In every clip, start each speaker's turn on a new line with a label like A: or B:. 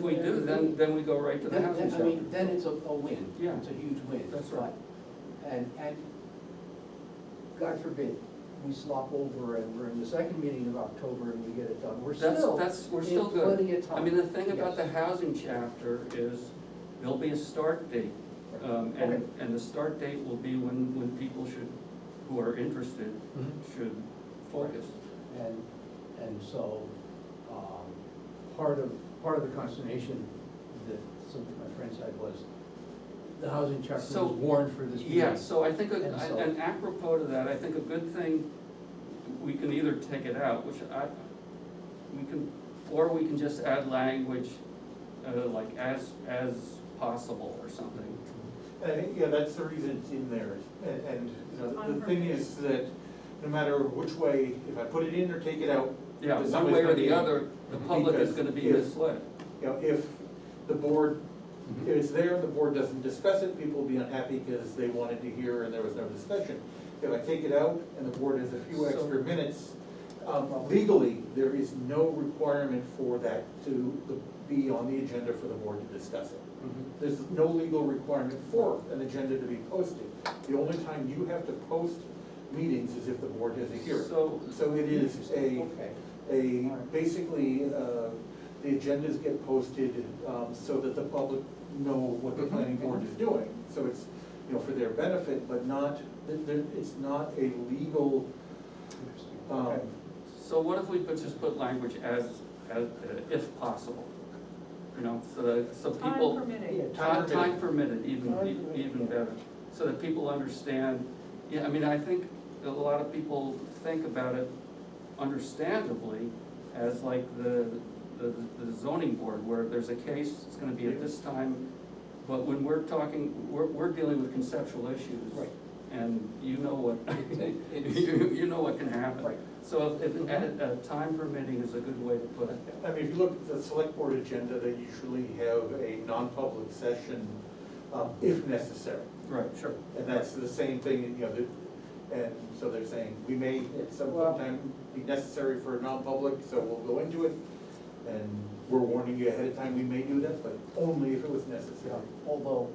A: we do, then, then we go right to the
B: Then,
A: housing
B: then- I mean,
A: chapter.
B: then it's a, a win.
A: Yeah.
B: It's a huge win.
A: That's right.
B: But- And, and, God forbid, we slop over and we're in the second meeting of October and we get it done, we're
A: That's,
B: still.
A: that's, we're
B: in
A: still good.
B: Plenty of time.
A: I mean, the thing about the
B: Yes.
A: housing chapter is, there'll be a start date. Um,
B: Okay.
A: and, and the start date will be when, when people should, who are interested, should focus.
B: And, and so, um, part of, part of the consternation that some of my friends had was, the housing chapter was
A: So-
B: warned for this meeting.
A: Yeah, so I think, a-
B: And so-
A: and apropos to that, I think a good thing, we can either take it out, which I, we can, or we can just add language, uh, like as, as possible or something.
C: And I think, yeah, that's the reason it's in there, and, and, you know, the-
D: So
C: the thing is that no matter which way, if I put it in or take it out,
A: Yeah,
C: There's
A: one
C: always
A: way or
C: gonna
A: the
C: be-
A: other, the public is
C: because
A: gonna be
C: if-
A: misled.
C: you know, if the board,
A: Mm-hmm.
C: if it's there, the board doesn't discuss it, people will be unhappy because they wanted to hear and there was no discussion. If I take it out and the board has a few
A: So-
C: extra minutes, um, legally, there is no requirement for that to be on the agenda for the board to discuss it.
A: Mhm.
C: There's no legal requirement for an agenda to be posted. The only time you have to post meetings is if the board has a hearing.
A: So,
C: So it is a,
B: Okay.
C: a, basically, uh, the agendas get posted um, so that the public know what the planning board is doing. So it's, you know, for their benefit, but not, there- there- it's not a legal,
B: Interesting.
C: um,
B: Okay.
A: so what if we could just put language as, as, uh, if possible? You know, so that, so people.
D: Time permitting.
C: Time
A: Time
C: permitted.
A: time permitted, even,
B: Time
A: e-
B: permitted,
A: even
B: yeah.
A: better, so that people understand, yeah, I mean, I think a lot of people think about it understandably as like the, the the zoning board, where there's a case, it's gonna be at this time, but when we're talking, we're, we're dealing with conceptual issues.
B: Right.
A: And you know what,
B: It- it's-
A: you, you know what can happen.
B: Right.
A: So if, if, uh, time permitting is a good way to put it.
C: I mean, if you look at the select board agenda, they usually have a non-public session um, if necessary.
A: Right, sure.
C: And that's the same thing, you know, that- and so they're saying, we may at some
B: Well-
C: time be necessary for non-public, so we'll go into it. And we're warning you ahead of time, we may do that, but only if it was
B: Yeah,
C: necessary.
B: although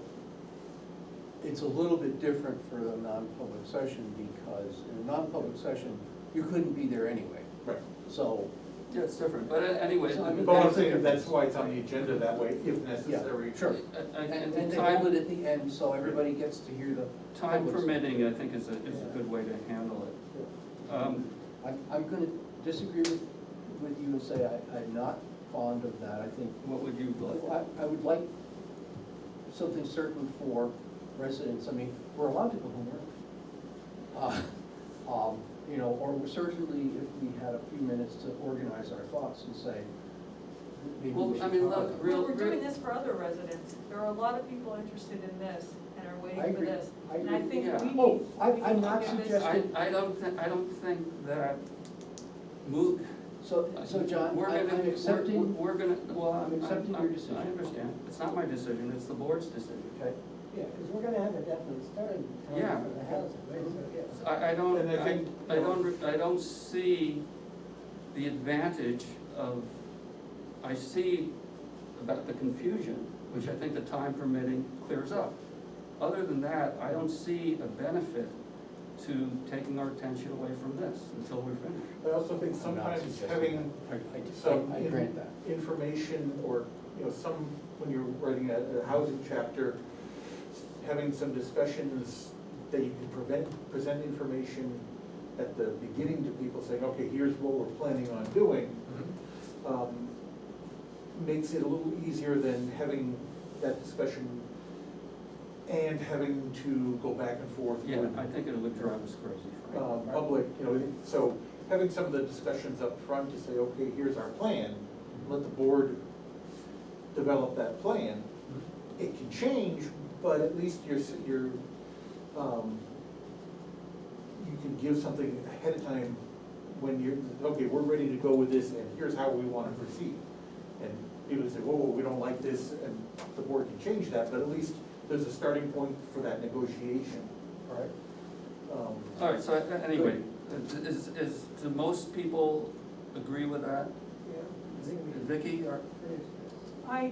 B: it's a little bit different for a non-public session because in a non-public session, you couldn't be there anyway.
C: Right.
B: So,
A: Yeah, it's different, but uh, anyway, I mean.
C: But I'm saying that's why it's on the agenda that way, if
B: yeah,
C: necessary.
B: sure.
A: And,
B: And,
A: and
B: and they
A: time,
B: hold it at the end, so everybody gets to hear the.
A: time
B: public's-
A: permitting, I think is a, is a good way to handle it. Um,
B: I'm, I'm gonna disagree with, with you and say I, I'm not fond of that. I think,
A: what would you like?
B: I, I would like something certain for residents. I mean, we're allowed to go home early. Uh, um, You know, or certainly if we had a few minutes to organize our thoughts and say, maybe
A: Well,
B: we should.
A: I mean,
B: talk
A: look,
B: about
A: real-
D: Well, we're doing this for other residents. There are a lot of people interested in this and are
B: I
D: waiting for
B: agree.
D: this.
B: I
D: And I
B: agree.
D: think
A: Yeah.
D: we.
B: that. Oh, I,
D: we
B: I'm
D: can
B: not
D: do this.
A: I,
B: suggesting,
A: I don't thi, I don't think that move.
B: so, so John,
A: we're
B: I-
A: gonna-
B: I'm
A: we're-
B: accepting,
A: We're gonna, well, I'm.
B: accepting
A: I'm-
B: your
A: I
B: decision.
A: understand, it's not my decision, it's the board's decision.
B: okay,
E: Yeah, because we're gonna have a definite starting
A: Yeah.
E: time for the housing, right? So, yeah.
A: I, I don't,
C: And I
A: I,
C: think-
A: I don't, re- I don't see the advantage of, I see about the confusion, which I think the time permitting clears up. Other than that, I don't see a benefit to taking our attention away from this until we're finished.
C: I also think sometimes having
B: I,
C: some.
B: I- I grant that.
C: Information or, you know, some, when you're writing a, a housing chapter, having some discussions that you can prevent, present information at the beginning to people saying, okay, here's what we're planning on doing, um, makes it a little easier than having that discussion and having to go back and forth with
A: Yeah, I think it would drive us crazy, Frank.
C: um, public, you know, so having some of the discussions up front to say, okay, here's our plan, let the board develop that plan. It can change, but at least you're, s- you're, um, you can give something ahead of time when you're, okay, we're ready to go with this, and here's how we wanna proceed. And people say, whoa, whoa, we don't like this, and the board can change that, but at least there's a starting point for that negotiation.
B: all right?
C: Um,
A: All right, so uh, anyway, is, is, do most people agree with that?
E: Yeah, I think we
A: Vicky, are,
E: finished this.
D: I,